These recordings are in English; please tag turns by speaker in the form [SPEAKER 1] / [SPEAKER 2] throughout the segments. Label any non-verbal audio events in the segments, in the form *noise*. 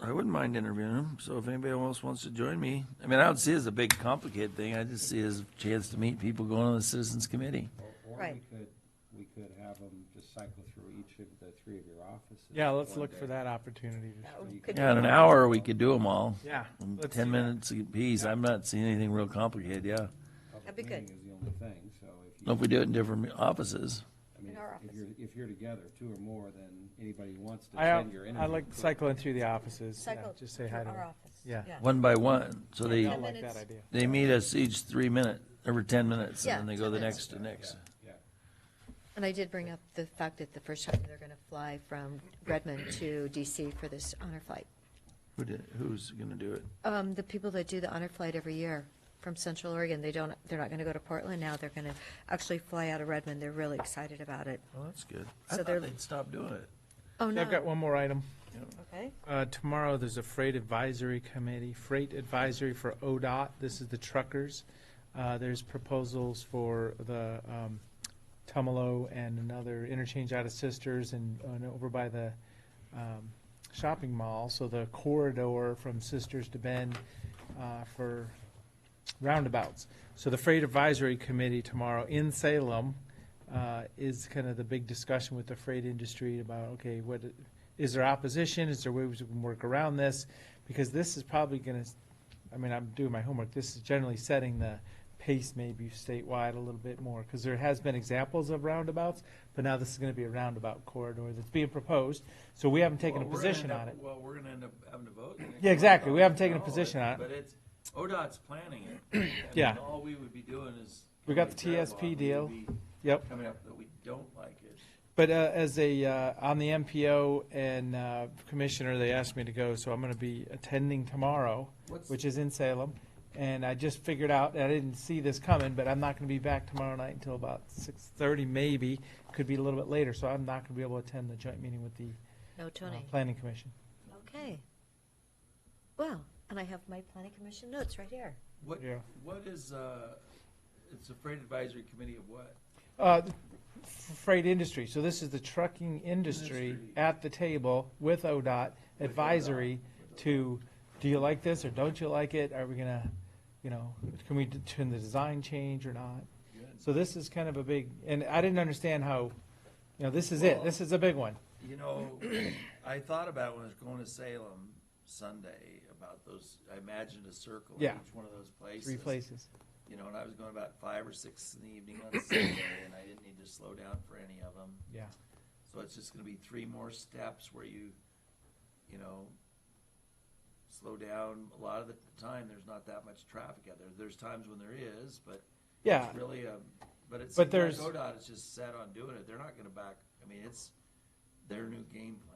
[SPEAKER 1] I wouldn't mind interviewing him, so if anybody else wants to join me, I mean, I don't see it as a big complicated thing, I just see it as a chance to meet people going on the citizens committee.
[SPEAKER 2] Or- Or we
[SPEAKER 3] Right.
[SPEAKER 2] could, we could have them just cycle through each of the three of your offices.
[SPEAKER 4] Yeah, let's
[SPEAKER 2] one
[SPEAKER 4] look
[SPEAKER 2] day.
[SPEAKER 4] for that opportunity. to-
[SPEAKER 3] That would-
[SPEAKER 2] You
[SPEAKER 3] Oh, could
[SPEAKER 1] Yeah, in
[SPEAKER 3] be-
[SPEAKER 1] an hour, we could do them all.
[SPEAKER 4] Yeah. let's do
[SPEAKER 1] Um, Ten
[SPEAKER 4] that.
[SPEAKER 1] minutes apiece, I'm not seeing anything real complicated, yeah.
[SPEAKER 2] Public
[SPEAKER 3] That'd be good.
[SPEAKER 2] meeting is the only thing, so if you,
[SPEAKER 1] If we do it in different offices,
[SPEAKER 2] I mean,
[SPEAKER 3] In our
[SPEAKER 2] if- if
[SPEAKER 3] office.
[SPEAKER 2] you're, if you're together, two or more, then anybody who wants to
[SPEAKER 4] I, uh,
[SPEAKER 2] attend your interview.
[SPEAKER 4] I like cycling through the offices. yeah,
[SPEAKER 3] Cycle
[SPEAKER 4] Just
[SPEAKER 3] to
[SPEAKER 4] say hi to
[SPEAKER 3] our
[SPEAKER 4] them.
[SPEAKER 3] office.
[SPEAKER 4] Yeah.
[SPEAKER 1] one by one, so
[SPEAKER 4] I
[SPEAKER 1] they,
[SPEAKER 3] Ten
[SPEAKER 4] like that
[SPEAKER 3] minutes.
[SPEAKER 4] idea.
[SPEAKER 1] they meet us each three minute, every ten minutes,
[SPEAKER 3] Yeah,
[SPEAKER 1] and then they go
[SPEAKER 3] 10
[SPEAKER 1] the
[SPEAKER 3] minutes.
[SPEAKER 1] next to next.
[SPEAKER 2] Yeah,
[SPEAKER 3] And I did bring up the fact that the first time they're going to fly from Redmond to DC for this honor flight.
[SPEAKER 1] Who did, who's gonna do it?
[SPEAKER 3] Um, the people that do the honor flight every year from Central Oregon, they don't, they're not going to go to Portland now. They're going to actually fly out of Redmond. They're really excited about it.
[SPEAKER 1] Oh, that's good. I
[SPEAKER 3] So
[SPEAKER 1] thought
[SPEAKER 3] they're-
[SPEAKER 1] they'd stop doing it.
[SPEAKER 3] Oh, no.
[SPEAKER 4] I've got one more item.
[SPEAKER 3] Okay.
[SPEAKER 4] Uh, Tomorrow, there's a freight advisory committee, freight advisory for ODOT. This is the truckers. Uh, There's proposals for the um, Tumalo and another interchange out of Sisters and and over by the um, shopping mall. So the corridor from Sisters to Bend uh, for roundabouts. So the Freight Advisory Committee tomorrow in Salem uh, is kind of the big discussion with the freight industry about, okay, what, is there opposition? Is there ways we can work around this? Because this is probably going to, I mean, I'm doing my homework, this is generally setting the pace maybe statewide a little bit more, because there has been examples of roundabouts, but now this is going to be a roundabout corridor that's being proposed, so we haven't taken a
[SPEAKER 1] Well, we're gonna
[SPEAKER 4] position
[SPEAKER 1] end up-
[SPEAKER 4] on it.
[SPEAKER 1] Well, we're gonna end up having to vote. in the next
[SPEAKER 4] Yeah, exactly. We
[SPEAKER 1] round.
[SPEAKER 4] haven't taken a
[SPEAKER 1] No,
[SPEAKER 4] position on it.
[SPEAKER 1] But it's, ODOT's planning
[SPEAKER 4] *clears throat*
[SPEAKER 1] it. I mean,
[SPEAKER 4] Yeah.
[SPEAKER 1] All we would be doing is.
[SPEAKER 4] We got the
[SPEAKER 1] coming with
[SPEAKER 4] TSP
[SPEAKER 1] their law.
[SPEAKER 4] deal.
[SPEAKER 1] We would be
[SPEAKER 4] Yep.
[SPEAKER 1] Coming up that we don't like it.
[SPEAKER 4] But uh, as a, uh, on the MPO and uh, commissioner, they asked me to go, so I'm going to be attending tomorrow,
[SPEAKER 1] What's-
[SPEAKER 4] which is in Salem. And I just figured out, and I didn't see this coming, but I'm not going to be back tomorrow night until about 6:30 maybe, could be a little bit later, so I'm not going to be able to attend the joint meeting with the
[SPEAKER 3] No,
[SPEAKER 4] uh,
[SPEAKER 3] Tony.
[SPEAKER 4] Planning Commission.
[SPEAKER 3] Okay. Well, and I have my planning commission notes right here.
[SPEAKER 1] What,
[SPEAKER 4] Yeah.
[SPEAKER 1] what is, uh, it's a freight advisory committee of what?
[SPEAKER 4] Uh, f- Freight industry, so this is the trucking industry
[SPEAKER 1] Industry.
[SPEAKER 4] at the table with ODOT advisory to, do you like this or don't you like it? Are we gonna, you know, can we d- turn the design change or not?
[SPEAKER 1] Good.
[SPEAKER 4] So this is kind of a big, and I didn't understand how, you know, this is it, this is a big one.
[SPEAKER 1] You know, I thought about when I was going to Salem Sunday about those, I imagined a circle in
[SPEAKER 4] Yeah.
[SPEAKER 1] each one of those places.
[SPEAKER 4] Three places.
[SPEAKER 1] You know, and I was going about five or six in the evening
[SPEAKER 4] *clears throat*
[SPEAKER 1] on Sunday and I didn't need to slow down for any of them.
[SPEAKER 4] Yeah.
[SPEAKER 1] So it's just gonna be three more steps where you, you know, slow down. A lot of the time, there's not that much traffic out there. There's times when there is, but
[SPEAKER 4] Yeah,
[SPEAKER 1] it's really, um, but it's,
[SPEAKER 4] But
[SPEAKER 1] but
[SPEAKER 4] there's-
[SPEAKER 1] ODOT is just set on doing it. They're not gonna back, I mean, it's their new game plan.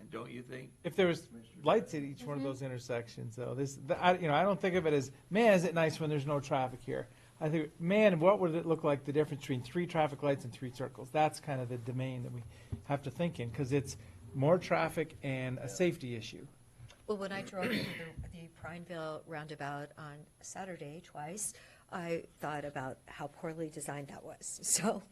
[SPEAKER 1] And don't you think?
[SPEAKER 4] if there was
[SPEAKER 1] Commissioner
[SPEAKER 4] lights at each one of those intersections, though, this, the- I, you know, I don't think of it as, man, is it nice when there's no traffic here? I think, man, what would it look like, the difference between three traffic lights and three circles? That's kind of the domain that we have to think in, because it's more traffic and a safety issue.
[SPEAKER 3] Well, when I drove the the Prineville roundabout on Saturday twice, I thought about how poorly designed that was. *laughs* So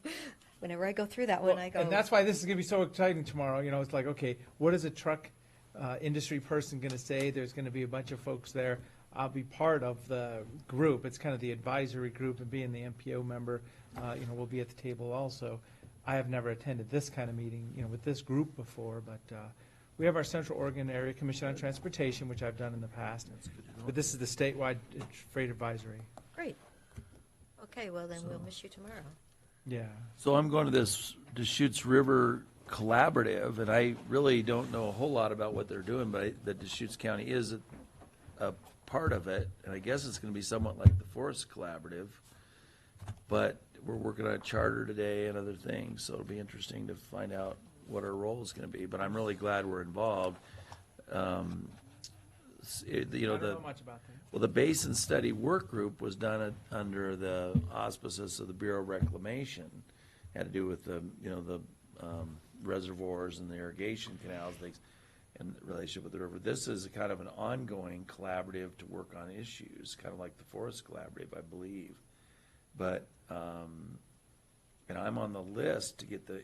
[SPEAKER 3] whenever I go through that one, I go.
[SPEAKER 4] And that's why this is gonna be so exciting tomorrow, you know, it's like, okay, what is a truck, uh, industry person gonna say? There's gonna be a bunch of folks there. I'll be part of the group, it's kind of the advisory group and being the MPO member, uh, you know, we'll be at the table also. I have never attended this kind of meeting, you know, with this group before, but, uh, we have our Central Oregon Area Commission on Transportation, which I've done in the past. But this is the statewide uh, freight advisory,
[SPEAKER 3] Great. Okay, well, then we'll
[SPEAKER 1] So-
[SPEAKER 3] miss you tomorrow.
[SPEAKER 4] yeah.
[SPEAKER 1] So I'm going to this Deschutes River Collaborative, and I really don't know a whole lot about what they're doing, but I- that Deschutes County is a, a part of it, and I guess it's gonna be somewhat like the Forest Collaborative. But we're working on a charter today and other things, so it'll be interesting to find out what our role is gonna be, but I'm really glad we're involved. Um, s- it- You know,
[SPEAKER 4] I
[SPEAKER 1] the.
[SPEAKER 4] don't know much about that.
[SPEAKER 1] Well, the basin study work group was done at- under the auspices of the Bureau of Reclamation. Had to do with the, you know, the um, reservoirs and the irrigation canals, things, and the relationship with the river. This is a kind of an ongoing collaborative to work on issues, kind of like the Forest Collaborative, I believe. But, um, and I'm on the list to get the